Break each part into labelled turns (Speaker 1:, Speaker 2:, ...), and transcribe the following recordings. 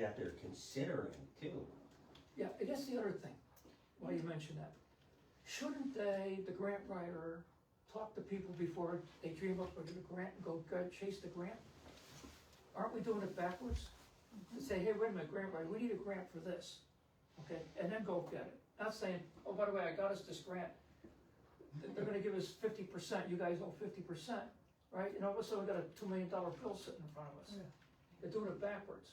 Speaker 1: that they're considering too.
Speaker 2: Yeah, and that's the other thing, why you mentioned that. Shouldn't they, the grant writer, talk to people before they dream up of the grant, and go go chase the grant? Aren't we doing it backwards? To say, hey, wait a minute, grant writer, we need a grant for this, okay, and then go get it. Not saying, oh, by the way, I got us this grant. Th- They're gonna give us fifty percent, you guys owe fifty percent, right? And all of a sudden, we got a two million dollar bill sitting in front of us. They're doing it backwards,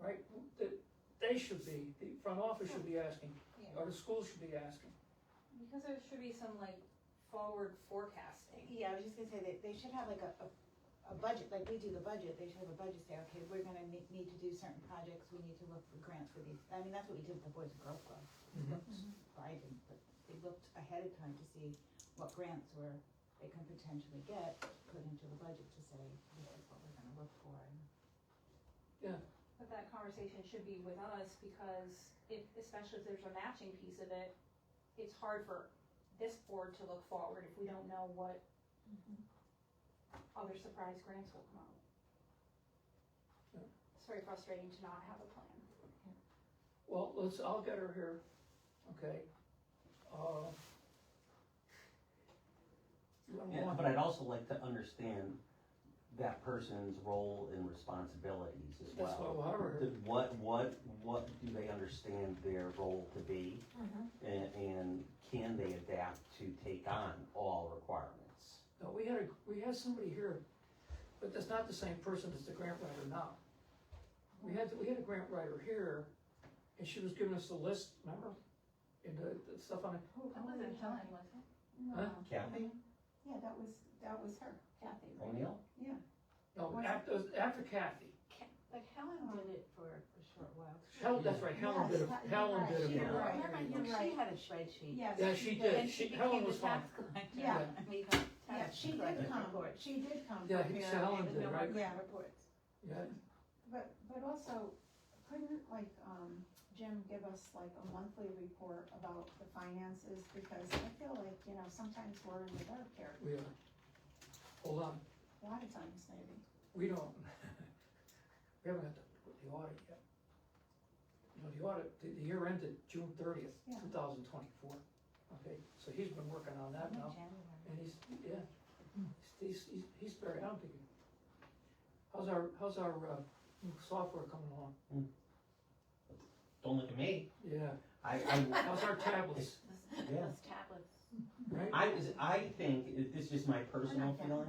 Speaker 2: right? The- they should be, the front office should be asking,
Speaker 3: Yeah,
Speaker 2: or the school should be asking.
Speaker 4: Because there should be some like forward forecasting.
Speaker 3: Yeah, I was just gonna say that they should have like a, a, a budget, like we do the budget, they should have a budget, say, okay, we're gonna ne- need to do certain projects, we need to look for grants for these. I mean, that's what we did with the Boys and Girls Club. We
Speaker 2: Mhm.
Speaker 3: looked- well, I didn't, but we looked ahead of time to see what grants were, they could potentially get, put into the budget to say, this is what we're gonna look for. and
Speaker 4: But that conversation should be with us because if, especially if there's a matching piece of it, it's hard for this board to look forward if we don't know what other surprise grants will come out.
Speaker 2: Yeah.
Speaker 4: It's very frustrating to not have a plan.
Speaker 2: Well, let's, I'll get her here, okay? Uh, you don't
Speaker 1: Yeah,
Speaker 2: want-
Speaker 1: but I'd also like to understand that person's role and responsibilities as well.
Speaker 2: That's why we'll have her here.
Speaker 1: Th- What, what, what do they understand their role to be? And, and can they adapt to take on all requirements?
Speaker 2: No, we had, a we had somebody here, but that's not the same person as the grant writer now. We had, we had a grant writer here, and she was giving us the list, remember? And the, the stuff on it.
Speaker 3: Oh,
Speaker 5: That wasn't Helen, was it?
Speaker 2: Huh?
Speaker 1: Kathy
Speaker 5: Yeah, that was, that was her, Kathy, right?
Speaker 1: O'Neill?
Speaker 2: No, after, after Kathy.
Speaker 3: Like Helen did it for a short while.
Speaker 2: Helen, that's right, Helen did it,
Speaker 3: Yes,
Speaker 2: Helen did it.
Speaker 3: She did
Speaker 2: for
Speaker 3: it
Speaker 2: her.
Speaker 3: right.
Speaker 5: Remember, you're
Speaker 3: She
Speaker 5: right.
Speaker 3: had a spreadsheet.
Speaker 5: Yes.
Speaker 2: Yeah, she did. She- Helen was fine.
Speaker 5: collector.
Speaker 3: Yeah.
Speaker 5: And we got
Speaker 3: Yeah,
Speaker 5: tax
Speaker 3: she did
Speaker 5: collector.
Speaker 3: come aboard, she did come.
Speaker 2: Yeah,
Speaker 3: aboard.
Speaker 2: he- Helen did, right?
Speaker 3: Yeah, reports.
Speaker 2: Yeah,
Speaker 5: But, but also, couldn't like, um, Jim give us like a monthly report about the finances? Because I feel like, you know, sometimes we're in the dark here,
Speaker 2: we are. Hold on.
Speaker 5: a lot of times maybe.
Speaker 2: We don't, we haven't got the, the audit yet. You know, the audit, the, the year ended June thirtieth,
Speaker 5: Yeah.
Speaker 2: two thousand twenty-four, okay, so he's been working on that now, and he's, yeah. He's, he's, he's very, I don't think, he- how's our, how's our, uh, software coming along?
Speaker 1: Don't look at me.
Speaker 2: Yeah,
Speaker 1: I, I,
Speaker 2: how's our tablets,
Speaker 1: Yeah.
Speaker 3: Those tablets.
Speaker 2: right?
Speaker 1: I, I think, this is just my personal feeling,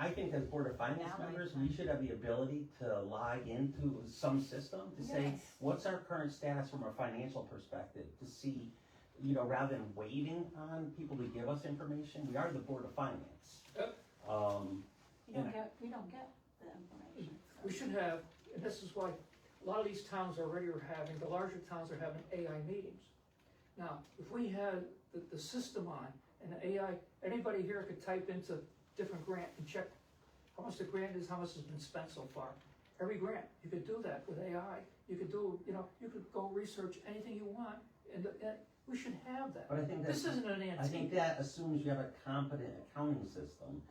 Speaker 1: I think as Board of Finance
Speaker 3: Now my
Speaker 1: members,
Speaker 3: time.
Speaker 1: we should have the ability to log into some system to say,
Speaker 5: Yes.
Speaker 1: what's our current status from a financial perspective? To see, you know, rather than waiting on people to give us information, we are the Board of Finance.
Speaker 2: Yep.
Speaker 1: Um,
Speaker 3: You don't get, you don't get the information. so.
Speaker 2: We should have, and this is why a lot of these towns already are having, the larger towns are having AI meetings. Now, if we had the, the system on and the AI, anybody here could type into different grant and check how much the grant is, how much has been spent so far. Every grant, you could do that with AI. You could do, you know, you could go research anything you want and, and we should have that.
Speaker 1: but I think
Speaker 2: This
Speaker 1: that's,
Speaker 2: isn't an
Speaker 1: I think
Speaker 2: antique.
Speaker 1: that assumes you have a competent accounting system,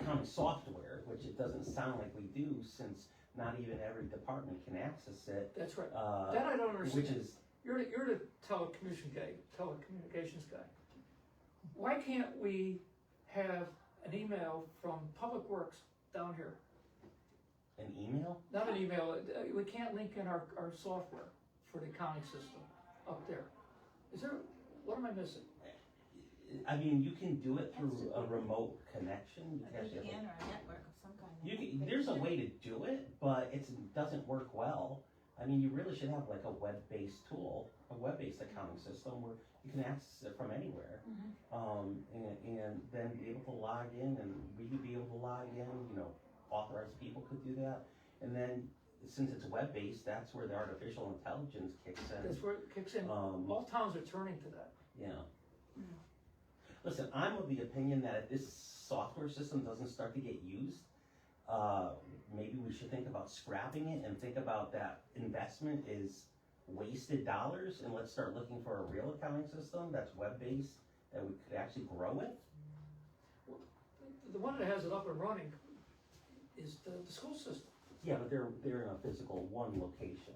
Speaker 1: accounting software, which it doesn't sound like we do since not even every department can access it.
Speaker 2: That's right. That
Speaker 1: Uh,
Speaker 2: I don't
Speaker 1: which
Speaker 2: understand.
Speaker 1: is,
Speaker 2: You're the, you're the telecommunication guy, telecommunications guy. Why can't we have an email from Public Works down here?
Speaker 1: an email?
Speaker 2: Not an email, uh, we can't link in our, our software for the accounting system up there. Is there, what am I missing?
Speaker 1: I mean, you can do it through a remote connection. You
Speaker 3: A
Speaker 1: have to have
Speaker 3: VPN or a network of some kind.
Speaker 1: a- you can, there's a way to do it, but it doesn't work well. I mean, you really should have like a web-based tool, a web-based accounting system where you can access it from anywhere. Um, and, and then be able to log in and we could be able to log in, you know, authorized people could do that. And then, since it's web-based, that's where the artificial intelligence kicks in.
Speaker 2: That's where it kicks in.
Speaker 1: Um,
Speaker 2: All towns are turning to that.
Speaker 1: yeah. Listen, I'm of the opinion that if this software system doesn't start to get used, uh, maybe we should think about scrapping it and think about that investment is wasted dollars and let's start looking for a real accounting system that's web-based that we could actually grow with.
Speaker 2: The one that has it up and running is the, the school system.
Speaker 1: Yeah, but they're, they're in a physical one location.